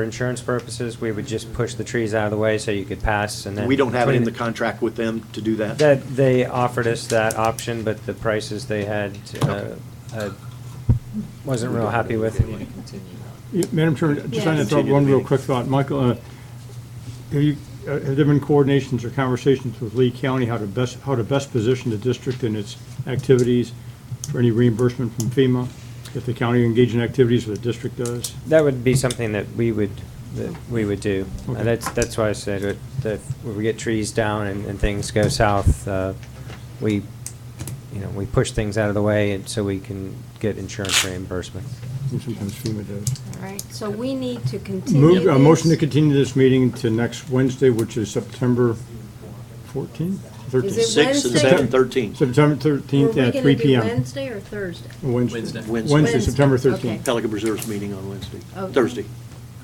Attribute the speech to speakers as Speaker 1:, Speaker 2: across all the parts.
Speaker 1: For insurance purposes, we would just push the trees out of the way so you could pass and then.
Speaker 2: We don't have it in the
Speaker 1: Between-
Speaker 2: contract with them to do that?
Speaker 1: That, they offered us that option, but the prices they had, uh, I wasn't real happy with.
Speaker 3: Yeah, Madam Chairman, just trying to throw out
Speaker 2: Continue
Speaker 3: one
Speaker 2: the
Speaker 3: real
Speaker 2: meeting.
Speaker 3: quick thought. Michael, uh, have you, uh, have there been coordinations or conversations with Lee County how to best, how to best position the district and its activities for any reimbursement from FEMA? If the county engages in activities or the district does?
Speaker 1: That would be something that we would, that we would do. And
Speaker 3: Okay.
Speaker 1: that's, that's why I said it, that when we get trees down and, and things go south, uh, we, you know, we push things out of the way and so we can get insurance reimbursement.
Speaker 3: And sometimes FEMA does.
Speaker 4: All right, so we need to continue
Speaker 3: Move,
Speaker 4: this.
Speaker 3: a motion to continue this meeting to next Wednesday, which is September 14th?
Speaker 4: Is it
Speaker 3: 13th?
Speaker 2: Six and
Speaker 4: Wednesday?
Speaker 2: seven, thirteen.
Speaker 3: September
Speaker 4: Were
Speaker 3: 13th
Speaker 4: we
Speaker 3: at
Speaker 4: gonna
Speaker 3: 3
Speaker 4: do
Speaker 3: PM.
Speaker 4: Wednesday or Thursday?
Speaker 3: Wednesday.
Speaker 2: Wednesday.
Speaker 3: Wednesday, September
Speaker 4: Wednesday,
Speaker 3: 13th.
Speaker 2: Pelican Reserve's meeting on Wednesday,
Speaker 4: Oh, Okay.
Speaker 2: Thursday,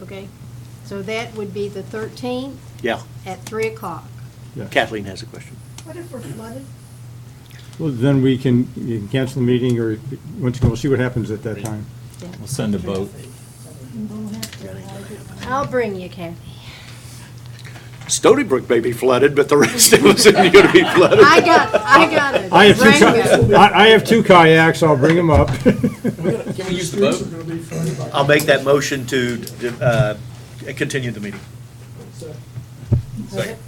Speaker 4: Okay, so that would be the 13th
Speaker 2: yeah.
Speaker 4: at 3 o'clock.
Speaker 3: Yeah.
Speaker 2: Kathleen has a question.
Speaker 5: What if we're flooded?
Speaker 3: Well, then we can, you can cancel the meeting, or, once again, we'll see what happens at that time.
Speaker 4: Yeah.
Speaker 6: We'll send a boat.
Speaker 4: I'll bring you, Kathy.
Speaker 2: Stony Brook may be flooded, but the rest of us isn't going to be flooded.
Speaker 4: I got, I got it.
Speaker 3: I have two,
Speaker 4: Bring it.
Speaker 3: ki- I, I have two kayaks, I'll bring them up.
Speaker 6: Can we use the boat?
Speaker 2: I'll make that motion to uh, continue the meeting.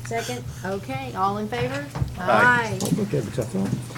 Speaker 4: Second, okay, all in favor?
Speaker 2: Aye.
Speaker 4: Aye.
Speaker 3: Okay, but I thought-